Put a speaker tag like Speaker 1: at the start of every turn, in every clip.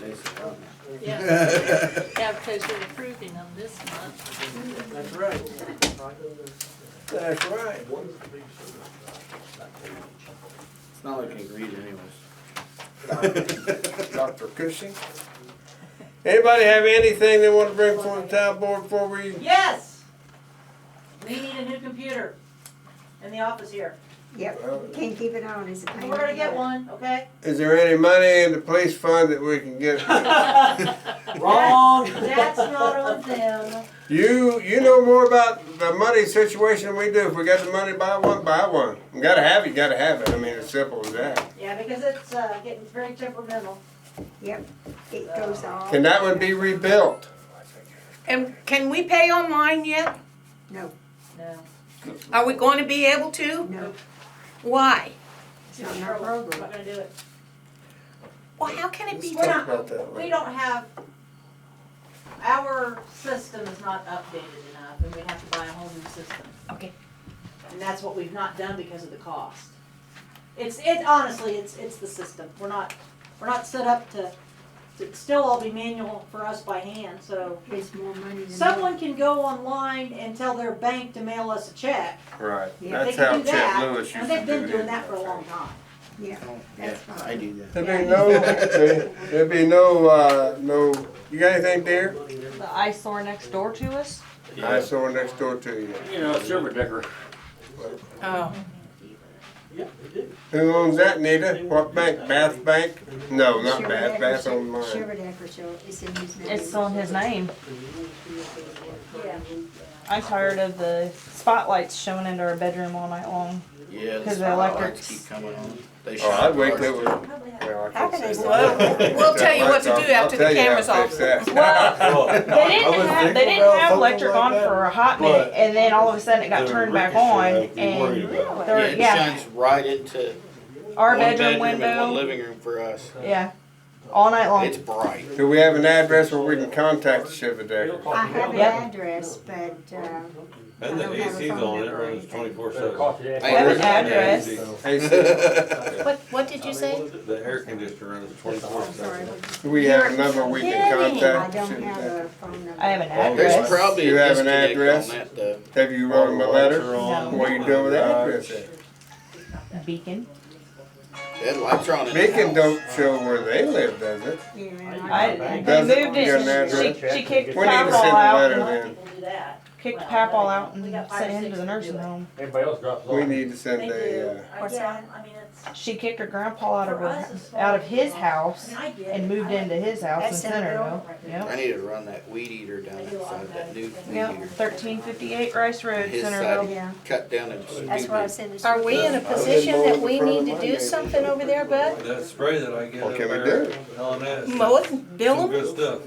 Speaker 1: this month.
Speaker 2: Yeah. Yeah, because you're approving them this month.
Speaker 1: That's right. That's right. It's not like I can read anyways.
Speaker 3: Dr. Cushing? Anybody have anything they wanna bring before the town board before we?
Speaker 4: Yes! We need a new computer in the office here.
Speaker 5: Yep, can't keep it on, it's a pain.
Speaker 4: We're gonna get one, okay?
Speaker 3: Is there any money in the police fund that we can get?
Speaker 1: Wrong.
Speaker 4: That's not on them.
Speaker 3: You, you know more about the money situation than we do. If we got the money, buy one, buy one. You gotta have it, you gotta have it. I mean, it's simple as that.
Speaker 4: Yeah, because it's, uh, getting very temperamental.
Speaker 5: Yep, it goes off.
Speaker 3: Can that one be rebuilt?
Speaker 6: And can we pay online yet?
Speaker 5: No,
Speaker 4: No.
Speaker 6: Are we going to be able to?
Speaker 5: no,
Speaker 6: Why?
Speaker 4: It's
Speaker 5: Not in
Speaker 4: just
Speaker 5: our
Speaker 4: trouble. We're
Speaker 5: program.
Speaker 4: not gonna do it.
Speaker 6: Well, how can it be?
Speaker 4: We're
Speaker 3: Talk about that
Speaker 4: not, we
Speaker 3: later.
Speaker 4: don't have, our system is not updated enough and we have to buy a whole new system.
Speaker 6: Okay.
Speaker 4: And that's what we've not done because of the cost. It's, it honestly, it's, it's the system. We're not, we're not set up to, to still all be manual for us by hand, so.
Speaker 5: it's more money than.
Speaker 4: Someone can go online and tell their bank to mail us a check.
Speaker 3: Right.
Speaker 5: Yeah,
Speaker 4: They
Speaker 3: That's
Speaker 4: can
Speaker 3: how
Speaker 4: do
Speaker 3: Chet
Speaker 4: that,
Speaker 3: Lewis used to do
Speaker 4: And they've been doing that for a
Speaker 3: his.
Speaker 4: long time.
Speaker 5: Yeah,
Speaker 1: Yeah,
Speaker 5: that's
Speaker 1: I
Speaker 5: fine.
Speaker 1: do that.
Speaker 3: There'd be no, there'd be no, uh, no, you got anything there?
Speaker 7: The eyesore next door to us?
Speaker 3: I saw her next door to you.
Speaker 1: You know, silver decker.
Speaker 6: Oh,
Speaker 3: Who owns that, Nita? What bank? Bath Bank? No, not Bath,
Speaker 5: Sherwood
Speaker 3: Bath
Speaker 5: Ecker-
Speaker 3: on mine.
Speaker 5: Sherwood Ecker Show, it's in his name.
Speaker 7: It's on his name.
Speaker 4: Yeah.
Speaker 7: I'm tired of the spotlights showing into our bedroom all night long.
Speaker 1: Yeah, the
Speaker 7: 'Cause the
Speaker 1: spotlights
Speaker 7: electrics-
Speaker 1: keep coming on. They
Speaker 3: Oh,
Speaker 1: shine
Speaker 3: I'd wait
Speaker 1: bright.
Speaker 3: till it was.
Speaker 4: Probably have-
Speaker 3: Well, I
Speaker 5: How
Speaker 3: can't
Speaker 5: can
Speaker 3: say
Speaker 5: they
Speaker 3: that.
Speaker 5: Well,
Speaker 6: we'll tell you what to do
Speaker 3: I'll- I'll
Speaker 6: after the
Speaker 3: tell you how
Speaker 6: camera's
Speaker 3: to
Speaker 6: off.
Speaker 3: fix that.
Speaker 7: Well, They
Speaker 8: I
Speaker 7: didn't
Speaker 8: was
Speaker 7: have, they
Speaker 8: thinking
Speaker 7: didn't
Speaker 8: about
Speaker 7: have
Speaker 8: something
Speaker 7: electric
Speaker 8: like
Speaker 7: on
Speaker 8: that,
Speaker 7: for a hot minute,
Speaker 8: but
Speaker 7: and then all of a sudden it got
Speaker 8: the
Speaker 7: turned back
Speaker 8: ricochet
Speaker 7: on,
Speaker 8: I'd be worried
Speaker 7: and
Speaker 8: about.
Speaker 7: there-
Speaker 1: Yeah, it
Speaker 7: yeah,
Speaker 1: shines right into
Speaker 7: our
Speaker 1: one
Speaker 7: bedroom
Speaker 1: bedroom and one
Speaker 7: window,
Speaker 1: living room for us.
Speaker 7: yeah, all night long.
Speaker 1: It's bright.
Speaker 3: Do we have an address where we can contact the Shiver Decker?
Speaker 5: I have an
Speaker 7: Yep.
Speaker 5: address, but, uh,
Speaker 8: And
Speaker 5: I
Speaker 8: the
Speaker 5: don't have a
Speaker 8: AC's
Speaker 5: phone
Speaker 8: on, it
Speaker 5: number or
Speaker 8: runs
Speaker 5: anything.
Speaker 8: twenty-four seven.
Speaker 1: Hey,
Speaker 7: have an
Speaker 1: there's-
Speaker 7: address.
Speaker 6: what, what did you say?
Speaker 8: The air conditioner runs twenty-four
Speaker 5: I'm sorry.
Speaker 8: seven.
Speaker 5: what-
Speaker 3: Do we have a number we can
Speaker 7: You're kidding.
Speaker 5: I
Speaker 3: contact? the
Speaker 5: don't
Speaker 3: Shiver
Speaker 5: have
Speaker 3: Decker?
Speaker 5: a phone number.
Speaker 7: I have an
Speaker 1: There's
Speaker 7: address.
Speaker 1: probably
Speaker 3: You
Speaker 1: a
Speaker 3: have an
Speaker 1: disconnect
Speaker 3: address?
Speaker 1: on that though.
Speaker 3: Have you wrote him a letter?
Speaker 7: on.
Speaker 3: What are you doing with the address at?
Speaker 7: Beacon.
Speaker 1: Headlights are on in the
Speaker 3: Beacon
Speaker 1: house.
Speaker 3: don't show where they live, does it?
Speaker 5: Yeah,
Speaker 7: I, they
Speaker 3: Doesn't
Speaker 7: moved
Speaker 3: get an
Speaker 7: it,
Speaker 3: address.
Speaker 7: she, she kicked
Speaker 3: We need
Speaker 7: Pap
Speaker 3: to send
Speaker 7: all
Speaker 3: a
Speaker 7: out, and-
Speaker 3: letter then.
Speaker 4: People do that.
Speaker 7: kicked Pap all out and sent him to the nursing home.
Speaker 9: Everybody else drops off.
Speaker 3: We need to
Speaker 4: They
Speaker 3: send a,
Speaker 4: do.
Speaker 3: uh,
Speaker 4: I
Speaker 7: What's
Speaker 4: yeah, I mean, it's,
Speaker 7: She kicked her grandpa out of
Speaker 4: For
Speaker 7: her,
Speaker 4: us, it's
Speaker 7: out of
Speaker 4: fine.
Speaker 7: his
Speaker 4: I
Speaker 7: house
Speaker 4: mean, I get it.
Speaker 7: and moved
Speaker 4: I-
Speaker 7: into his house in
Speaker 5: That's Centerville.
Speaker 7: Centerville, yep.
Speaker 1: I need to run that weed eater down that side, that new weed
Speaker 7: Yep,
Speaker 1: eater.
Speaker 7: thirteen fifty-eight Rice Road,
Speaker 1: His side.
Speaker 7: Centerville.
Speaker 5: yeah,
Speaker 1: Cut down and
Speaker 5: that's what I
Speaker 1: stupid.
Speaker 5: said.
Speaker 6: Are we in a
Speaker 3: uh,
Speaker 6: position that we need to do something over there, Bud?
Speaker 8: That spray that I get
Speaker 3: What
Speaker 8: up
Speaker 3: can we
Speaker 8: there,
Speaker 3: do?
Speaker 8: LNS,
Speaker 6: Mow it, and bill
Speaker 8: some
Speaker 6: them?
Speaker 8: good stuff.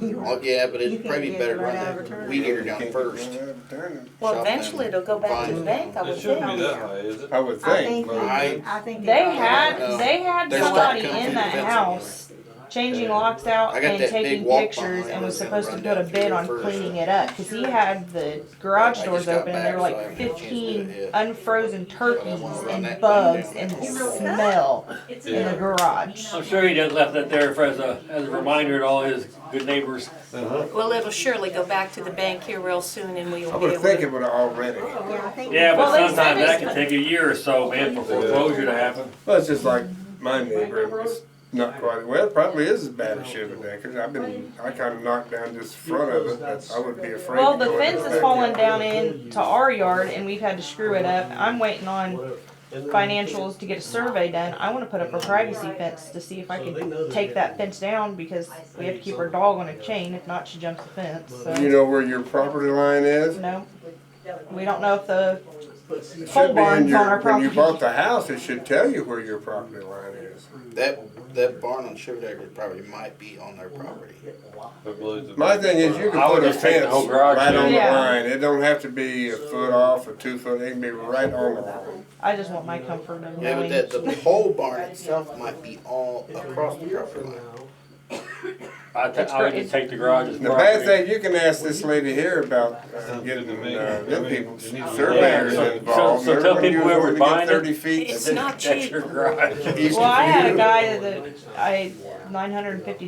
Speaker 1: Oh, yeah, but
Speaker 5: You
Speaker 1: it'd
Speaker 5: can't
Speaker 1: probably
Speaker 5: get
Speaker 1: better
Speaker 5: it right
Speaker 1: run
Speaker 5: out of return.
Speaker 1: that weed eater down
Speaker 3: Can't
Speaker 1: first.
Speaker 3: get one done.
Speaker 6: Well,
Speaker 1: Shop down
Speaker 6: eventually
Speaker 1: there.
Speaker 6: it'll go back to the
Speaker 1: Fine.
Speaker 6: bank, I
Speaker 8: It
Speaker 6: would
Speaker 8: shouldn't
Speaker 6: think.
Speaker 8: be that way, is it?
Speaker 3: I would
Speaker 5: I
Speaker 3: think.
Speaker 5: think,
Speaker 3: but-
Speaker 1: I-
Speaker 5: they- I think.
Speaker 7: They
Speaker 1: No.
Speaker 7: had, they had
Speaker 1: They're
Speaker 7: somebody
Speaker 1: starting to come
Speaker 7: in
Speaker 1: through the
Speaker 7: that
Speaker 1: fence
Speaker 7: house, changing locks out
Speaker 1: I got
Speaker 7: and
Speaker 1: that big
Speaker 7: taking
Speaker 1: walk
Speaker 7: pictures
Speaker 1: behind
Speaker 7: and was
Speaker 1: us and
Speaker 7: supposed to
Speaker 1: run
Speaker 7: put a
Speaker 1: down through
Speaker 7: bid
Speaker 1: there
Speaker 7: on
Speaker 1: first.
Speaker 7: cleaning it up, cause he had the garage
Speaker 1: I
Speaker 7: doors
Speaker 1: just got
Speaker 7: open and there were
Speaker 1: back, so I haven't
Speaker 7: like
Speaker 1: had a chance to do
Speaker 7: fifteen
Speaker 1: it yet.
Speaker 7: unfrozen turkeys
Speaker 1: wanna run that
Speaker 7: and
Speaker 1: thing
Speaker 7: bugs
Speaker 1: down.
Speaker 7: and the
Speaker 1: You know what?
Speaker 7: smell
Speaker 4: It's
Speaker 7: in the
Speaker 4: either-
Speaker 7: garage.
Speaker 10: I'm sure he just left that there for as a, as a reminder to all his good neighbors.
Speaker 8: Uh-huh.
Speaker 6: Well, it'll surely go back to the bank here real soon and we'll
Speaker 3: I
Speaker 6: be
Speaker 3: was
Speaker 6: able to.
Speaker 3: thinking about it already.
Speaker 5: Yeah, I think.
Speaker 10: Yeah,
Speaker 6: Well,
Speaker 10: but
Speaker 6: they said
Speaker 10: sometimes that
Speaker 6: it's-
Speaker 10: can take a year or so, man, for foreclosure to happen.
Speaker 3: Well, it's just like my neighbor, it's not quite, well, it probably is as bad as Shiver Deckers. I've been, I kinda knocked down just the front of it, but I would be afraid.
Speaker 7: Well,
Speaker 3: to
Speaker 7: the
Speaker 3: go in
Speaker 7: fence
Speaker 3: the
Speaker 7: has fallen
Speaker 3: backyard.
Speaker 7: down into our yard and we've had to screw it up. I'm waiting on financials to get a survey done. I wanna put up a privacy fence to see if I can take that fence down because we have to keep our dog on a chain. If not, she jumps the fence,
Speaker 3: You
Speaker 7: so.
Speaker 3: know where your property line is?
Speaker 7: No, we don't know if the
Speaker 3: It
Speaker 7: Pole
Speaker 3: should be in
Speaker 7: barn's on
Speaker 3: your,
Speaker 7: our
Speaker 3: when you
Speaker 7: property.
Speaker 3: bought the house, it should tell you where your property line is.
Speaker 1: That, that barn on Shiverdecker probably might be on their property.
Speaker 8: But Blue's a-
Speaker 3: My thing is, you
Speaker 10: I
Speaker 3: can
Speaker 10: would
Speaker 3: put a
Speaker 10: just take the
Speaker 3: fence
Speaker 10: whole garage
Speaker 3: right on the
Speaker 7: down. Yeah.
Speaker 3: line. It don't have to be a foot off or two foot, it can be right on the line.
Speaker 7: I just want my comfort of
Speaker 1: Yeah, but
Speaker 7: knowing.
Speaker 1: that, the whole barn itself might be all across the property line.
Speaker 10: I, th- I would just take the garage as
Speaker 3: The bad
Speaker 10: property.
Speaker 3: thing, you can ask this lady here about uh,
Speaker 8: Sounds
Speaker 3: getting,
Speaker 8: good to me.
Speaker 3: uh, them people,
Speaker 8: You need to-
Speaker 3: surveyors
Speaker 10: Yeah, so-
Speaker 3: involved.
Speaker 10: so- so tell people whoever's
Speaker 3: Everybody was wanting to get
Speaker 10: buying it,
Speaker 3: Thirty feet.
Speaker 6: It's not
Speaker 10: That's
Speaker 6: cheap.
Speaker 10: your garage.
Speaker 3: east
Speaker 7: Well, I
Speaker 3: of
Speaker 7: had a
Speaker 3: you.
Speaker 7: guy that I, nine hundred and fifty